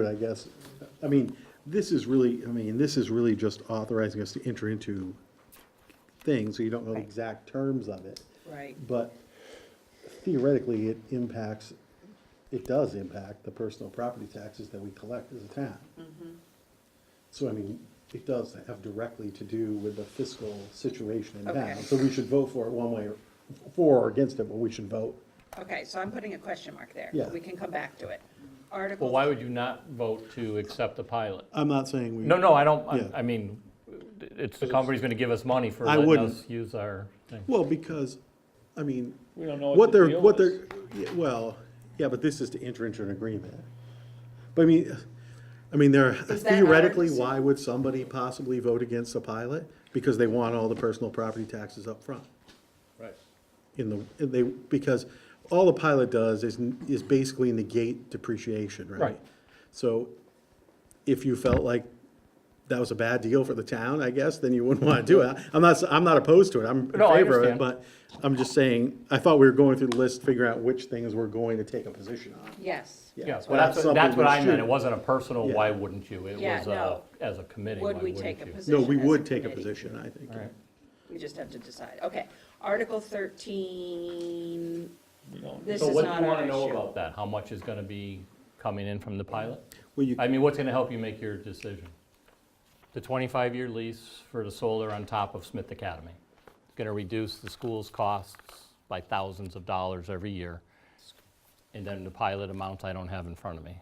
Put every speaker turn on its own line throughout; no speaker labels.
it, I guess. I mean, this is really, I mean, this is really just authorizing us to enter into things, so you don't know the
Right.
exact terms of it.
Right.
But theoretically, it impacts, it does impact the personal property taxes that we collect as a town.
Mm-hmm.
So I mean, it does have directly to do with the fiscal situation in town.
Okay.
So we should vote for it one way or, for or against it, but we should vote.
Okay, so I'm putting a question mark there.
Yeah.
We can come back to it.
Well,
Article,
why would you not vote to accept the pilot?
I'm not saying we.
No, no, I don't, I-
Yeah.
I mean, it's, the company's gonna give us money for
I
letting
wouldn't.
us use our thing.
Well, because, I mean,
We don't know
what
what the
they're,
deal
what
is.
they're, yeah, well, yeah, but this is to enter into an agreement. But I mean, I mean, there,
Is that
theoretically,
ours?
why would somebody possibly vote against the pilot? Because they want all the personal property taxes up front
Right.
in the, and they, because all the pilot does is, is basically negate depreciation, right?
Right.
So if you felt like that was a bad deal for the town, I guess, then you wouldn't want to do it. I'm not, I'm not opposed to it, I'm in
No, I
favor of it,
understand.
but I'm just saying, I thought we were going through the list, figuring out which things we're going to take a position on.
yes.
Yeah,
so
well, that's,
something
that's what
we
I meant,
should-
it wasn't a personal,
Yeah.
why wouldn't you? It
Yeah,
was a,
no.
as a committee, why
Would we
wouldn't you?
take a position?
No, we
as a
would take a
committee?
position, I think.
All right.
We just have to decide. Okay. Article 13,
We don't-
this
So
is
what do
not
you
our
wanna know
issue.
about that? How much is gonna be coming in from the pilot?
Well, you,
I mean, what's gonna help you make your decision? The twenty-five year lease for the solar on top of Smith Academy. It's gonna reduce the school's costs by thousands of dollars every year. And then the pilot amount I don't have in front of me.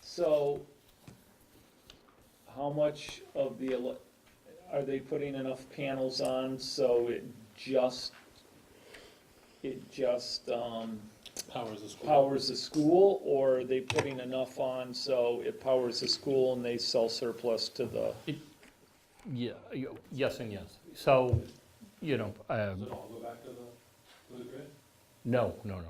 So, how much of the, ele- are they putting enough panels on so it just, it just, um,
Powers the school.
powers the school? Or are they putting enough on so it powers the school and they sell surplus to the,
Yeah, y- yes and yes. So, you know,
Does
um,
it all go back to the, to the grid?
no, no, no.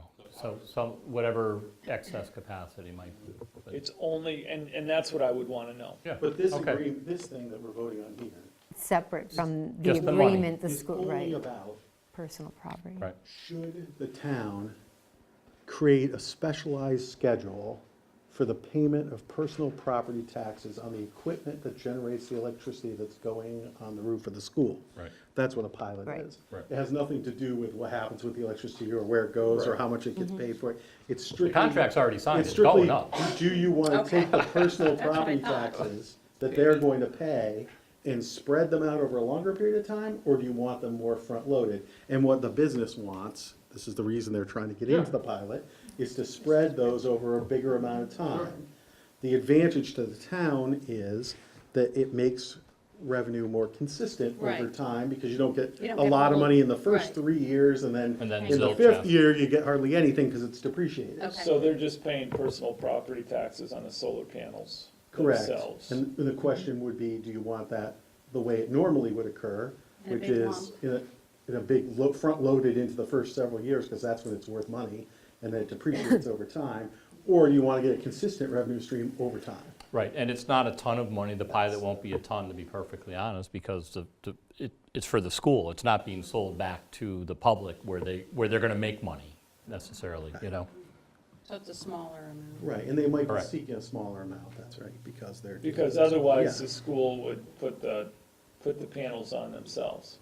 So, some, whatever excess capacity might be. but-
it's only, and, and that's what I would wanna know.
Yeah,
but this
okay.
agree, this thing that we're voting on here
separate from the
Just the money.
agreement, the
is
school,
only
right,
about
personal property.
Right.
Should the town create a specialized schedule for the payment of personal property taxes on the equipment that generates the electricity that's going on the roof of the school?
Right.
That's what a pilot
Right.
is.
Right.
It has nothing to do with what happens with the electricity or where it goes or how much it gets paid for. It's strictly.
The contract's already signed,
It's
it's going
strictly,
up.
do you want to
Okay.
take the personal
what I
property
thought.
taxes that they're going to pay and spread them out over a longer period of time, or do you want them more front-loaded? And what the business wants, this is the reason they're trying to get into the pilot, is to spread those over a bigger amount of time. The advantage to the town is that it makes revenue more consistent over
Right.
time, because you don't get
You don't
a
get
lot of
all-
money in the first
right.
three years, and then
And then
in the
zilch
fifth
after.
year, you get hardly anything, because it's depreciated.
Okay.
So they're just paying personal property taxes on the solar panels
Correct.
themselves.
And the question would be, do you want that the way it normally would occur,
In a
which
big
is in a, in a big, lo- front-loaded into the first several years, because that's when it's worth money, and then it depreciates over time, or do you want to get a consistent revenue stream over time?
Right, and it's not a ton of money, the pilot won't be a ton, to be perfectly honest, because the, the- it, it's for the school, it's not being sold back to the public where they, where they're gonna make money necessarily, you know?
So it's a smaller amount.
Right, and they might be
Correct.
seeking a smaller amount, that's right, because they're.
Because otherwise,
Yeah.
the school would put the, put the panels on themselves,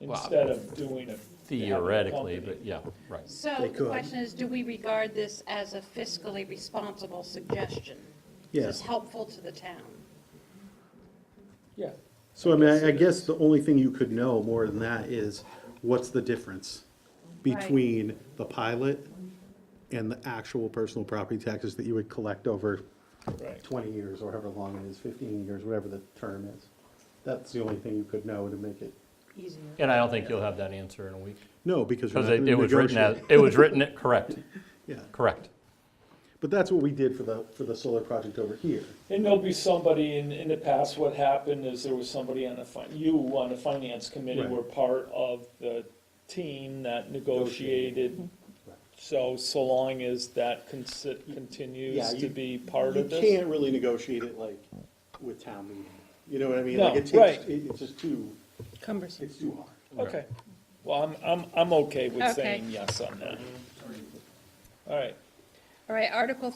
instead of doing it.
Theoretically, but yeah, right.
So
They
the
could.
question is, do we regard this as a fiscally responsible suggestion? Is this
Yes,
helpful to the town?
Yeah.
so I mean, I I guess the only thing you could know more than that is, what's the difference
Right.
between the pilot and the actual personal property taxes that you would collect over
Right.
20 years, or however long it is, 15 years, whatever the term is. That's the only thing you could know to make it,
Easier.
And I don't think you'll have that answer in a week,
no, because you're
because
not going
it
to
it was written as,
negotiate.
it was written, correct,
Yeah,
correct.
but that's what we did for the, for the solar project over here.
And there'll be somebody, in, in the past, what happened is there was somebody on the, fin- you on the finance committee
Right.
were part of the team that negotiated. So, so long as that consi-
Yeah,
continues
you-
to be part
You
of this.
can't really negotiate it like with town meeting, you know what I mean?
No,
Like it
right.
takes, it- it's just too,
Cumbersome.
it's too hard.
Okay, well, I'm, I'm, I'm okay with
Okay.
saying yes on that. All right.
All right, Article